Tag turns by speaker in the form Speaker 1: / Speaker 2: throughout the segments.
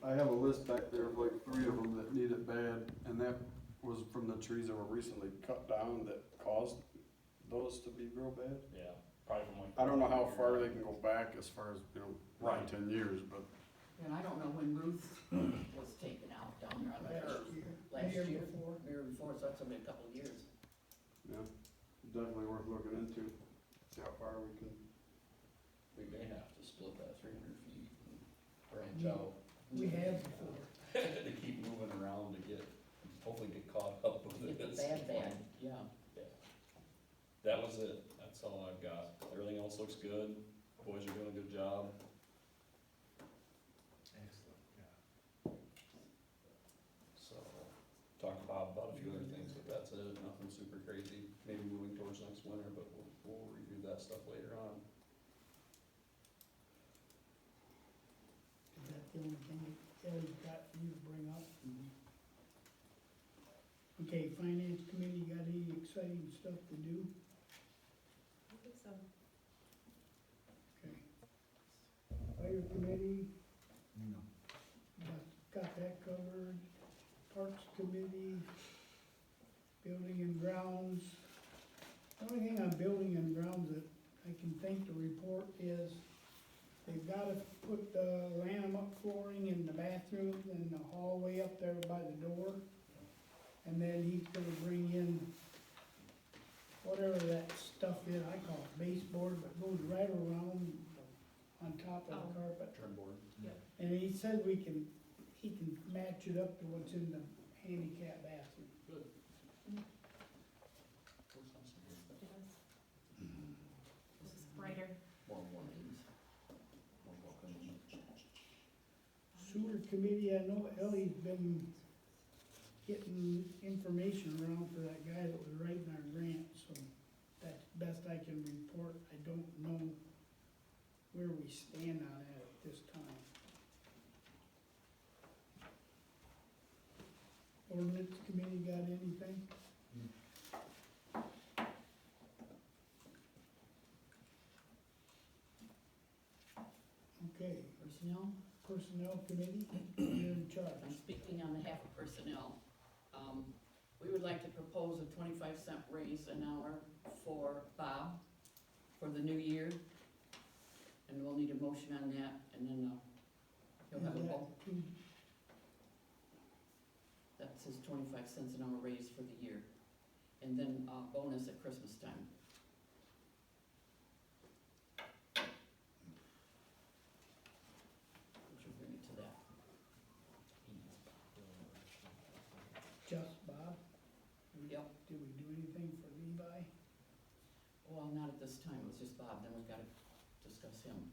Speaker 1: I have a list back there of like three of them that need it bad, and that was from the trees that were recently cut down that caused those to be real bad.
Speaker 2: Yeah, probably from like.
Speaker 1: I don't know how far they can go back as far as, you know, nine,
Speaker 2: Right.
Speaker 1: ten years, but
Speaker 3: And I don't know when Ruth was taken out down there on the curb. Last year.
Speaker 4: before.
Speaker 3: Year before, so that's been a couple of years.
Speaker 1: definitely worth looking into, see how far we can.
Speaker 2: We may have to split that three hundred feet and
Speaker 4: We-
Speaker 2: branch out.
Speaker 4: We have before.
Speaker 2: To keep moving around to get, hopefully get caught up
Speaker 3: To
Speaker 2: with
Speaker 3: Get the
Speaker 2: this.
Speaker 3: bad bad, yeah.
Speaker 2: That was it, that's all I've got, everything else looks good, boys are doing a good job.
Speaker 5: Excellent, yeah.
Speaker 2: So, talked to Bob about a few other things, but that's it, nothing super crazy, maybe moving towards next winter, but we'll, we'll review that stuff later on.
Speaker 4: Is that the only thing that Ellie got you to bring up? Okay, finance committee, got any exciting stuff to do?
Speaker 6: I think so.
Speaker 4: Okay. Fire committee,
Speaker 5: No.
Speaker 4: got, got that covered. Parks committee, building and grounds. The Only thing on building and grounds that I can think to report is they've gotta put the lantern up flooring in the bathrooms and the hallway up there by the door. And then he's gonna bring in whatever that stuff is, I call it baseboard, but goes right around on top of the carpet.
Speaker 2: Turn board.
Speaker 4: And he said we can, he can match it up to what's in the handicap bathroom.
Speaker 6: It is.
Speaker 4: Mm-hmm.
Speaker 6: This is brighter.
Speaker 2: More warnings. More welcome.
Speaker 4: Sewer committee, I know Ellie's been getting information around for that guy that was writing our grant, so that's best I can report. I don't know where we stand on that at this time. Ordinance committee got anything? Okay,
Speaker 3: Personnel,
Speaker 4: personnel committee, you're in charge.
Speaker 3: I'm speaking on behalf of personnel. Um, we would like to propose a twenty-five cent raise an hour for Bob for the new year. And we'll need a motion on that, and then, uh, he'll have a
Speaker 4: Is that
Speaker 3: vote.
Speaker 4: two-
Speaker 3: That's his twenty-five cents an hour raise for the year. And then uh, bonus at Christmas time. Which will bring it to that.
Speaker 4: Just Bob,
Speaker 3: Yep,
Speaker 4: did we do anything for Levi?
Speaker 3: well, not at this time, it was just Bob, then we've gotta discuss him.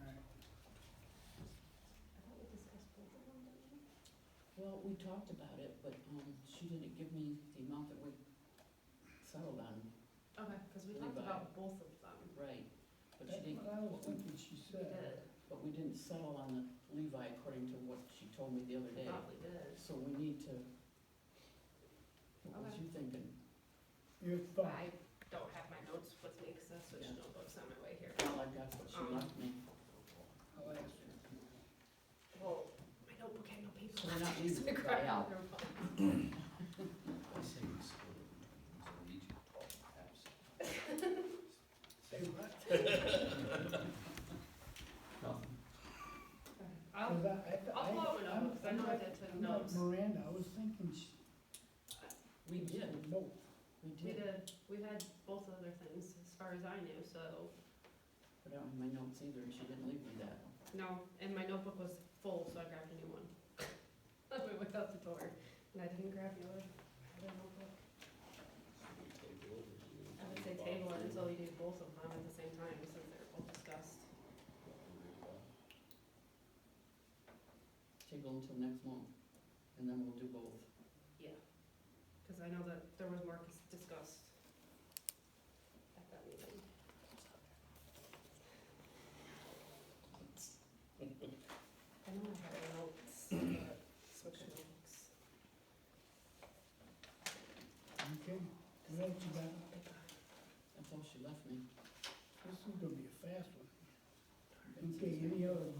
Speaker 4: Alright,
Speaker 6: I thought we discussed both of them, didn't we?
Speaker 3: Well, we talked about it, but, um, she didn't give me the amount that we settled on,
Speaker 6: Okay, because we talked
Speaker 3: Levi.
Speaker 6: about both of them.
Speaker 3: right? But she
Speaker 4: that's
Speaker 3: didn't,
Speaker 4: what I was thinking she
Speaker 6: We
Speaker 4: said.
Speaker 6: did,
Speaker 3: but we didn't settle on the Levi according to what she told me the other
Speaker 6: we
Speaker 3: day.
Speaker 6: probably did.
Speaker 3: So we need to, what was you thinking?
Speaker 4: Your
Speaker 6: I
Speaker 4: thought,
Speaker 6: don't have my notes with me because I switched
Speaker 3: Yeah.
Speaker 6: notebooks on my way here.
Speaker 3: All I got was she left me.
Speaker 4: Um, I'll ask her.
Speaker 6: Well, my notebook had no paper.
Speaker 3: So we're not
Speaker 6: left,
Speaker 3: leaving
Speaker 6: so I
Speaker 3: the
Speaker 6: grabbed
Speaker 3: guy out.
Speaker 6: another one.
Speaker 2: I say we split it between them, so we each get twelve perhaps.
Speaker 4: Say what?
Speaker 6: I'll,
Speaker 4: 'Cause I- I-
Speaker 6: I'll follow it up
Speaker 4: I'm-
Speaker 6: because I
Speaker 4: I'm
Speaker 6: know I
Speaker 4: like-
Speaker 6: did take
Speaker 4: I'm like
Speaker 6: notes.
Speaker 4: Miranda, I was thinking she.
Speaker 3: We did,
Speaker 4: Both.
Speaker 3: we
Speaker 6: we
Speaker 3: did,
Speaker 6: did, we had both other things as far as I knew, so,
Speaker 3: but I don't have my notes either, and she didn't leave me that.
Speaker 6: no, and my notebook was full, so I grabbed a new one. On my way out the door, and I didn't grab the other, I had a notebook. I would say table it until you do both of them at the same time, since they're both discussed.
Speaker 3: Table until next month, and then we'll do both.
Speaker 6: Cause I know that there was more dis- discussed